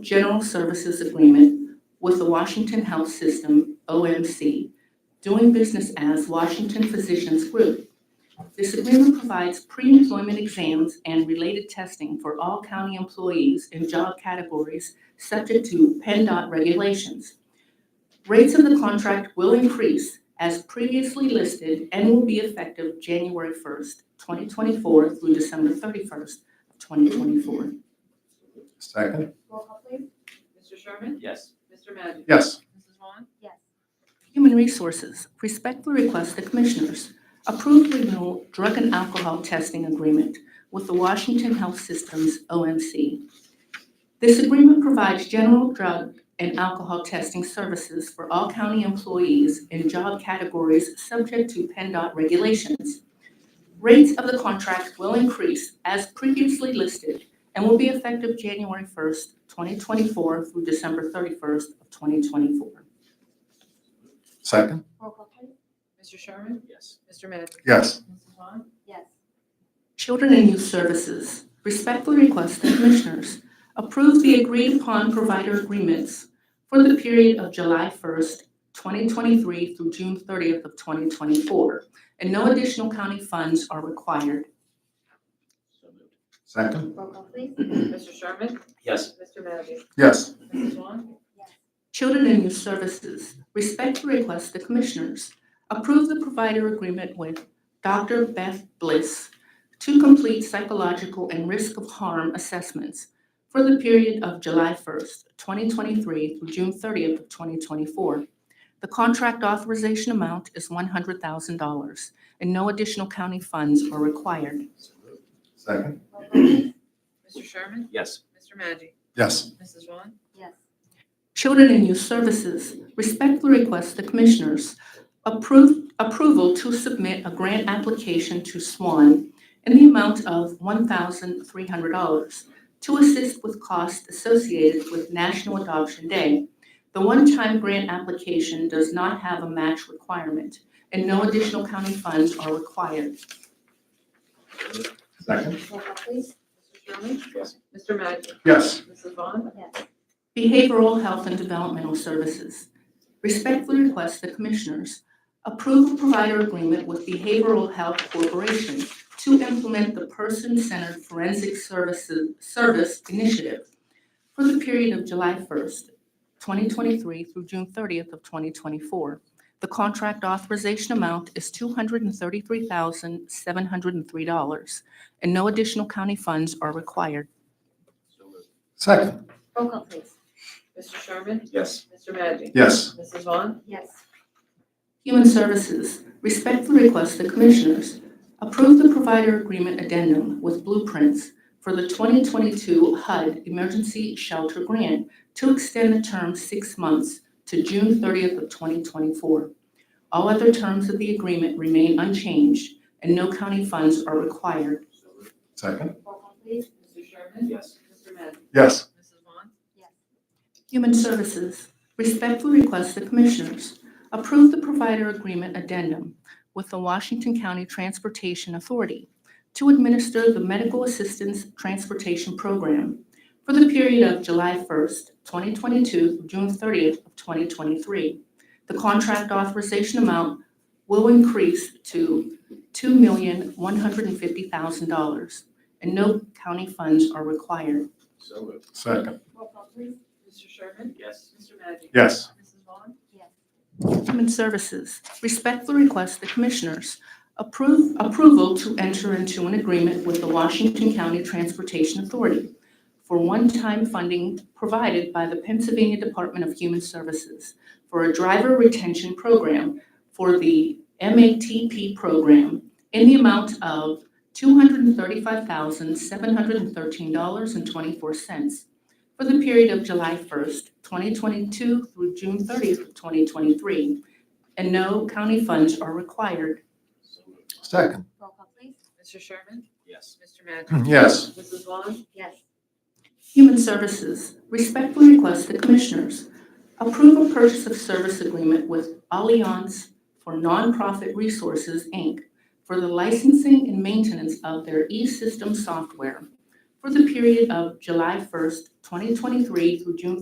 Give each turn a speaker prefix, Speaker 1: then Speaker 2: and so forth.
Speaker 1: General Services Agreement with the Washington Health System, OMC, doing business as Washington Physicians Group. This agreement provides pre-employment exams and related testing for all county employees in job categories subject to PennDOT regulations. Rates of the contract will increase as previously listed and will be effective January 1st, 2024 through December 31st, 2024.
Speaker 2: Second?
Speaker 3: Roll call please.
Speaker 4: Mr. Sherman?
Speaker 5: Yes.
Speaker 4: Mr. Magic?
Speaker 2: Yes.
Speaker 4: Mrs. Vaughn?
Speaker 3: Yes.
Speaker 1: Human Resources respectfully request the Commissioners approve renewal drug and alcohol testing agreement with the Washington Health Systems, OMC. This agreement provides general drug and alcohol testing services for all county employees in job categories subject to PennDOT regulations. Rates of the contract will increase as previously listed and will be effective January 1st, 2024 through December 31st of 2024.
Speaker 2: Second?
Speaker 3: Roll call please.
Speaker 4: Mr. Sherman?
Speaker 5: Yes.
Speaker 4: Mr. Magic?
Speaker 2: Yes.
Speaker 4: Mrs. Vaughn?
Speaker 3: Yes.
Speaker 1: Children and Youth Services respectfully request the Commissioners approve the agreed-upon provider agreements for the period of July 1st, 2023 through June 30th of 2024, and no additional county funds are required.
Speaker 5: So moved.
Speaker 2: Second?
Speaker 3: Roll call please.
Speaker 4: Mr. Sherman?
Speaker 5: Yes.
Speaker 4: Mr. Magic?
Speaker 2: Yes.
Speaker 4: Mrs. Vaughn?
Speaker 1: Children and Youth Services respectfully request the Commissioners approve the provider agreement with Dr. Beth Bliss to complete psychological and risk of harm assessments for the period of July 1st, 2023 through June 30th of 2024. The contract authorization amount is $100,000, and no additional county funds are required.
Speaker 5: So moved.
Speaker 2: Second?
Speaker 3: Roll call please.
Speaker 4: Mr. Sherman?
Speaker 5: Yes.
Speaker 4: Mr. Magic?
Speaker 2: Yes.
Speaker 4: Mrs. Vaughn?
Speaker 3: Yes.
Speaker 1: Children and Youth Services respectfully request the Commissioners approve, approval to submit a grant application to SWAN in the amount of $1,300 to assist with costs associated with National Adoption Day. The one-time grant application does not have a match requirement, and no additional county funds are required.
Speaker 5: So moved.
Speaker 2: Second?
Speaker 3: Roll call please.
Speaker 4: Mr. Sherman?
Speaker 5: Yes.
Speaker 4: Mr. Magic?
Speaker 2: Yes.
Speaker 4: Mrs. Vaughn?
Speaker 3: Yes.
Speaker 1: Behavioral Health and Developmental Services. Respectfully request the Commissioners approve a provider agreement with Behavioral Health Corporation to implement the Person-Centered Forensic Services Service Initiative for the period of July 1st, 2023 through June 30th of 2024. The contract authorization amount is $233,703, and no additional county funds are required.
Speaker 5: So moved.
Speaker 2: Second?
Speaker 3: Roll call please.
Speaker 4: Mr. Sherman?
Speaker 5: Yes.
Speaker 4: Mr. Magic?
Speaker 2: Yes.
Speaker 4: Mrs. Vaughn?
Speaker 3: Yes.
Speaker 1: Human Services respectfully request the Commissioners approve the provider agreement addendum with blueprints for the 2022 HUD Emergency Shelter Grant to extend the term six months to June 30th of 2024. All other terms of the agreement remain unchanged, and no county funds are required.
Speaker 5: So moved.
Speaker 2: Second?
Speaker 3: Roll call please.
Speaker 4: Mr. Sherman?
Speaker 5: Yes.
Speaker 4: Mr. Magic?
Speaker 2: Yes.
Speaker 4: Mrs. Vaughn?
Speaker 1: Human Services respectfully request the Commissioners approve the provider agreement addendum with the Washington County Transportation Authority to administer the Medical Assistance Transportation Program for the period of July 1st, 2022 through June 30th of 2023. The contract authorization amount will increase to $2,150,000, and no county funds are required.
Speaker 5: So moved.
Speaker 2: Second?
Speaker 3: Roll call please.
Speaker 4: Mr. Sherman?
Speaker 5: Yes.
Speaker 4: Mr. Magic?
Speaker 2: Yes.
Speaker 4: Mrs. Vaughn?
Speaker 3: Yes.
Speaker 1: Human Services respectfully request the Commissioners approve, approval to enter into an agreement with the Washington County Transportation Authority for one-time funding provided by the Pennsylvania Department of Human Services for a driver retention program for the MATP program in the amount of $235,713.24 for the period of July 1st, 2022 through June 30th, of 2023, and no county funds are required.
Speaker 5: So moved.
Speaker 2: Second?
Speaker 3: Roll call please.
Speaker 4: Mr. Sherman?
Speaker 5: Yes.
Speaker 4: Mr. Magic?
Speaker 2: Yes.
Speaker 4: Mrs. Vaughn?
Speaker 3: Yes.
Speaker 1: Human Services respectfully request the Commissioners approve a purchase of service agreement with Allianz for Nonprofit Resources, Inc. for the licensing and maintenance of their e-system software for the period of July 1st, 2023 through June